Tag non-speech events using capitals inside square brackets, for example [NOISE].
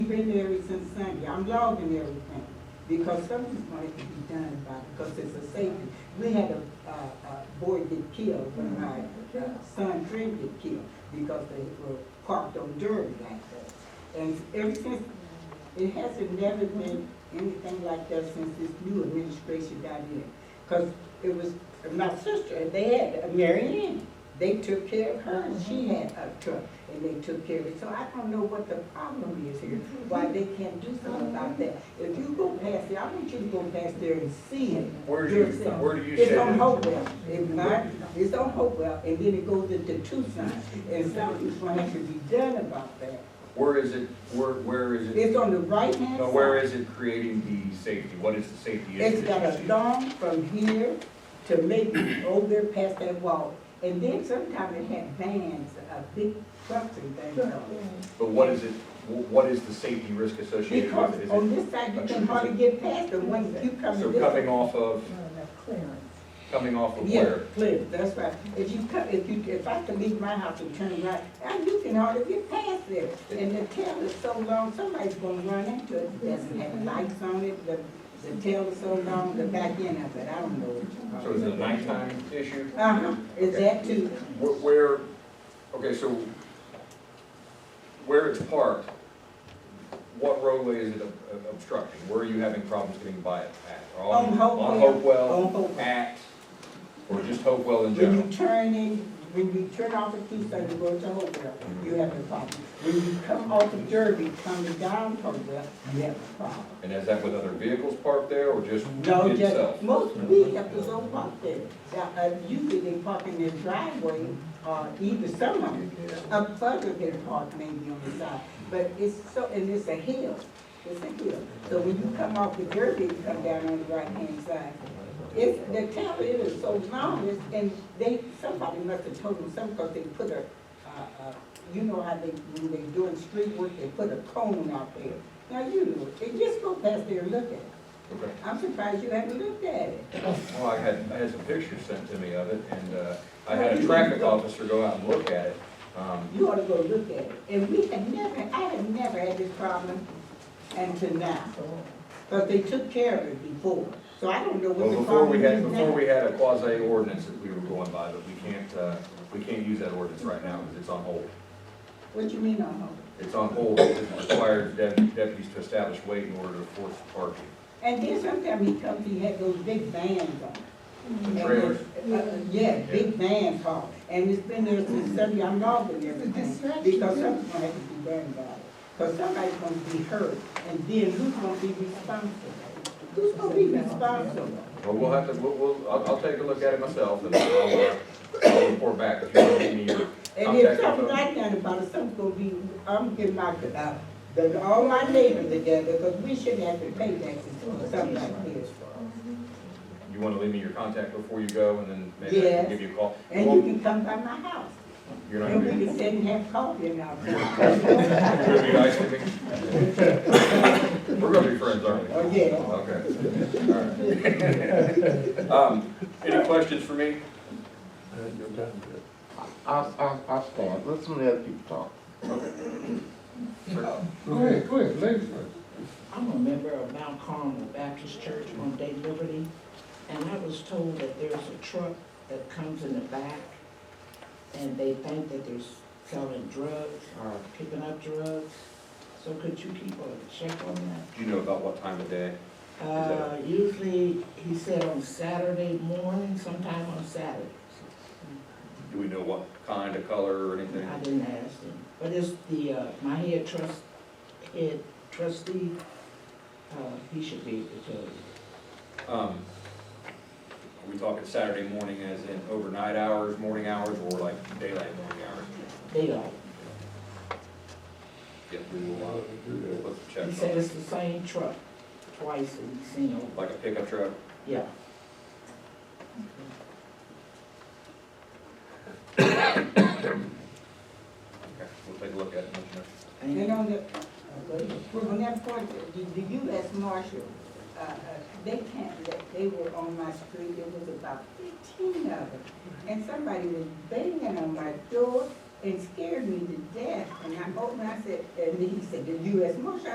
been there since Sunday, I'm logging everything, because something's going to be done about it, because it's a safety. We had a, a, a boy get killed when my uh, son Trent get killed, because they were parked on Derby like that. And ever since, it hasn't never been anything like that since this new administration got in. Because it was my sister, and they had, Mary Ann, they took care of her, and she had a truck, and they took care of it. So I don't know what the problem is here, why they can't do something about that. If you go past there, I want you to go past there and see it. Where do you, yourself. where do you It's say on that? Hopewell, it's not, it's on Hopewell, and then it goes into Tucson, and something's gonna have to be done about that. Where is it, where, where is it, It's on the right-hand no, where side. is it creating the safety? What is the safety issue? It's got that a you see? long from here to maybe over there past that wall, and then sometimes it had vans, uh, big trucks and things on it. But what is it, wh- what is the safety risk associated with it? Because Is on it, this side, you can hardly get past them when you come so this way. coming off of, coming off of Yeah, where? clear, that's right. If you come, if you, if I could leave my house and turn right, now you can hardly get past there. And the tail is so long, somebody's gonna run into it, It doesn't have lights on it, the, the tail is so long, the back end of it, I don't know what So you is call it. it a nighttime issue? Uh-huh, is that too? Wh- Where, okay, so where it's parked, what roadway is it ob- ob- obstructing? Where are you having problems getting by it at? On- On Hopewell. On Hopewell, On Hopewell. at, or just Hopewell When in general? you turn in, when you turn off at Tucson to go to Hopewell, you have a problem. When you come off of Derby, coming down Hopewell, you have a problem. And is that with other vehicles parked there or just No, itself? just, most vehicles don't park there. Now, uh, Usually they park in their driveway, or either some of them, up further they park maybe on the side. But it's so, and it's a hill, it's a hill. So when you come off the Derby, you come down on the right-hand side. It's, the town, it is so long, it's, and they, somebody must have told them something, because they put a, uh, uh, you know how they, when they doing street work, they put a cone out there. Now, you know, they just go past there and look at it. Okay. I'm surprised you haven't looked at it. Well, I had, I had some pictures sent to me of it and, uh, I had a traffic officer go out and look at it. Um, You ought to go look at it. And we had never, I had never had this problem until now. But they took care of it before, so I don't know Well, what the before we problem had, is before now. we had a quasi ordinance that we were going by, but we can't, uh, we can't use that ordinance right now because it's on hold. What you mean on hold? It's on hold, it requires dep- deputies to establish weight in order to force parking. And then sometime he comes, he had those big vans on. And The trailers. those- uh, uh, Yeah, big vans haul. And it's been there since Sunday, I'm logging everything. Because something's gonna have to be done about it. Because somebody's gonna be hurt, and then who's gonna be responsible? Who's gonna be responsible? Well, we'll have to, we'll, we'll, I'll, I'll take a look at it myself and I'll, uh, I'll report back if you want to give me your And if contact info. something like that about it, something's gonna be, I'm getting my, uh, the, all my neighbors together, because we shouldn't have to pay taxes for something like this. You want to leave me your contact before you go and then maybe I Yes. can give you a call? And you can come by my house, You're not and going we to can sit and have coffee and all that. [LAUGHS] be, you're going to be nice to me? We're going to be friends, aren't we? Oh, yeah. Okay. All right. Um, Any questions for me? I'll, I'll, I'll stand, let some of the other people talk. Go ahead, go ahead, ladies first. I'm a member of Mount Carmel Baptist Church on Day Liberty, and I was told that there's a truck that comes in the back, and they think that they're selling drugs or picking up drugs. So could you keep a check on that? Do you know about what time of day? Uh, usually, he said on Saturday morning, sometime on Saturday. Do we know what kind of color or anything? I didn't ask him, but it's the, uh, my head trust, head trustee, uh, he should be able to tell you. Um, Are we talking Saturday morning as in overnight hours, morning hours, or like daylight morning hours? Daylight. Yeah, we will, uh, let's check. He said it's the same truck twice and he's seen over. Like a pickup truck? Yeah. Okay, we'll take a look at it. and let you know. And- And on the, on that point, the, the US Marshal, uh, uh, they can't, let- they were on my street, there was about fifteen of them. And somebody was banging on my door and scared me to death. And I opened, I said, and he said, the US Marshal,